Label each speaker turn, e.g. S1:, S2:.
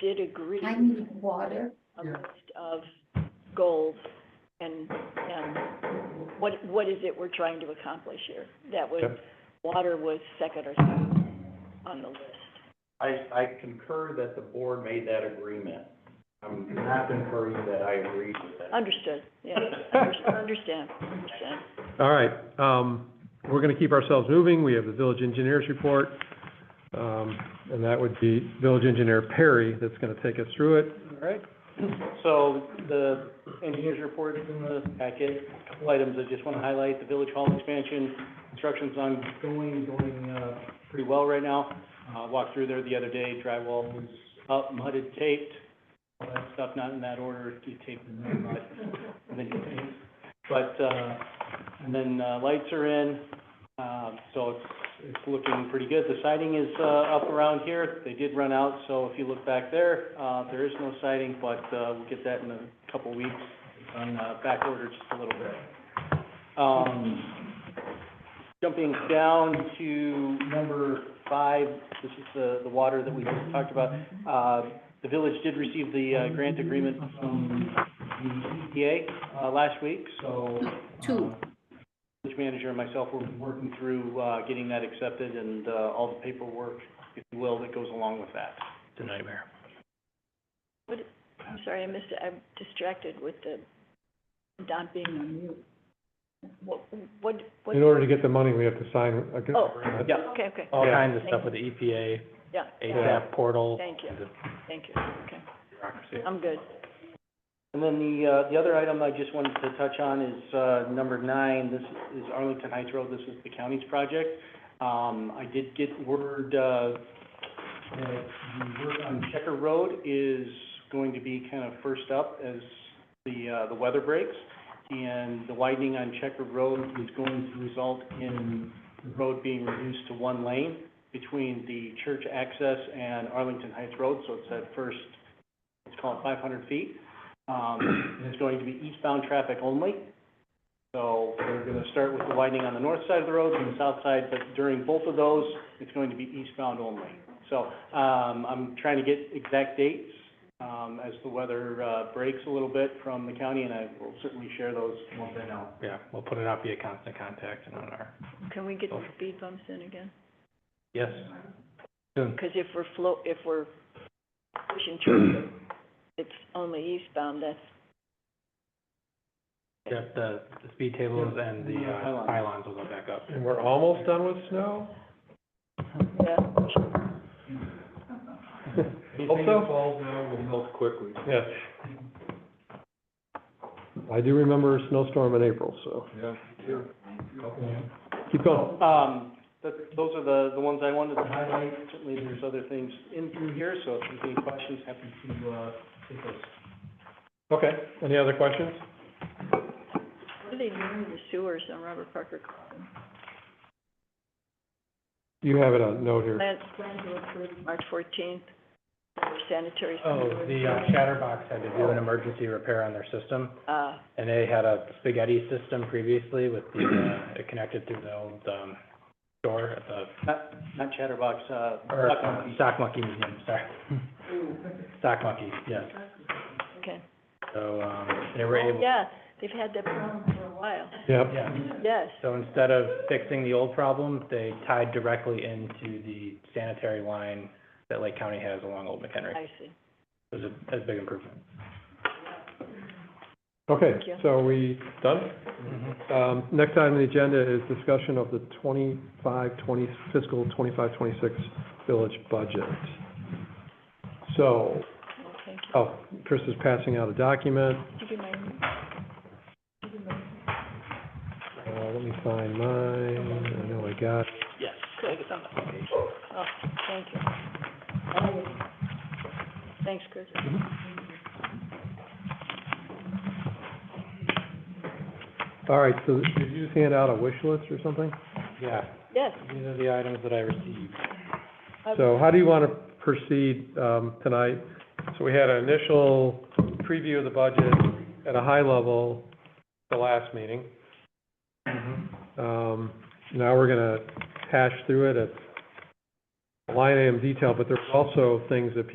S1: did agree
S2: I need water.
S1: a list of goals and, and what, what is it we're trying to accomplish here? That was,
S3: Yep.
S1: water was second or third on the list.
S4: I, I concur that the board made that agreement. I'm not concurring that I agree with that.
S1: Understood, yeah, Under- understand, understand.
S3: All right, um, we're gonna keep ourselves moving. We have the village engineer's report. Um, and that would be village engineer Perry that's gonna take us through it.
S5: All right, so the engineer's report is in the packet. Couple items I just want to highlight, the village hall expansion, construction's ongoing, going, uh, pretty well right now. Uh, walked through there the other day, drywall was up, mudded, taped, all that stuff, not in that order, you tape and then mud, and then you paint. But, uh, and then, uh, lights are in, um, so it's, it's looking pretty good. The siding is, uh, up around here. They did run out, so if you look back there, uh, there is no siding, but, uh, we'll get that in a couple weeks. It's On, uh, back order just a little bit. Um, jumping down to number five, this is the, the water that we just talked about. Uh, the village did receive the, uh, grant agreement from the EPA, uh, last week, so. uh,
S2: Two.
S5: village manager and myself were working through, uh, getting that accepted and, uh, all the paperwork, if you will, that goes along with that. It's a nightmare.
S1: I'm sorry, I missed, it. I'm distracted with the, not being on mute. What, what, what?
S3: In order to get the money, we have to sign a g-
S1: Oh.
S3: agreement.
S5: Yeah,
S1: Okay, okay,
S6: all
S3: Yeah.
S6: kinds of stuff with the E EPA,
S1: yeah, yeah,
S6: ASAP portal.
S1: Thank you.
S6: the
S1: thank you, okay,
S6: Bureaucracy.
S1: I'm good.
S5: And then the, uh, the other item I just wanted to touch on is, uh, number nine, this is Arlington Heights Road, this is the county's project. Um, I did get word, uh, that the work on Checker Road is going to be kind of first up as the, uh, the weather breaks. And the widening on Checker Road is going to result in the road being reduced to one lane between the church access and Arlington Heights Road, so it's that first, let's call it five hundred feet. Um, and it's going to be eastbound traffic only. So we're gonna start with the widening on the north side of the road and the south side, but during both of those, it's going to be eastbound only. So, um, I'm trying to get exact dates, um, as the weather, uh, breaks a little bit from the county, and I will certainly share those once I know.
S6: Yeah, we'll put it out via constant contact and on our,
S1: Can we get the speed bumps in again?
S6: yes,
S1: Because if we're flow, if we're pushing traffic, it's only eastbound, that's,
S6: yeah, the, the speed tables and the, uh,
S5: Pylons.
S6: pylons will go back up.
S3: And we're almost done with snow?
S1: yeah,
S3: Hope
S4: Anything
S3: so.
S4: that falls now will melt quickly.
S3: Yes. I do remember a snowstorm in April, so
S4: Yeah.
S3: keep going.
S5: Um, that, those are the, the ones I wanted to highlight. Certainly, there's other things in through here, so if there's any questions, happy to, uh, take those.
S3: Okay, any other questions?
S1: what are they doing to the sewers on Robert Parker Commons?
S3: You have it on note here.
S1: Plan, plan to approve March fourteenth, sanitary.
S6: Oh, the uh, Chatterbox had to do an emergency repair on their system,
S1: Uh,
S6: and they had a spaghetti system previously with the, uh, it connected to the old, um, door at the,
S5: Not, not Chatterbox, uh,
S6: or,
S5: Duck Hunt.
S6: uh, Sock Monkey Museum, sorry. Sock Monkey, yes.
S1: okay.
S6: So, um, they were able,
S1: Yeah, they've had that problem for a while,
S3: Yep,
S6: yeah.
S1: yes.
S6: So instead of fixing the old problem, they tied directly into the sanitary line that Lake County has along Old McHenry.
S1: I see,
S6: It was a, a big improvement.
S3: okay,
S1: Thank you.
S3: so we done? Um, next item on the agenda is discussion of the 25, 20 fiscal 25, 26 village budget. So,
S1: well, thank you.
S3: oh, Chris is passing out a document.
S1: Did you get mine?
S3: Uh, let me find mine. I know I got it.
S6: Yes, I think it's on that page.
S1: Oh, thank you.
S6: Mm-hmm.
S1: Thanks, Chris.
S3: All right, so did you just hand out a wish list or something?
S6: Yeah,
S1: Yes.
S6: these are the items that I received.
S3: So how do you want to proceed um, tonight? So we had an initial preview of the budget at a high level the last meeting. Um, Now we're going to hash through it at line item detail, but there's also things that people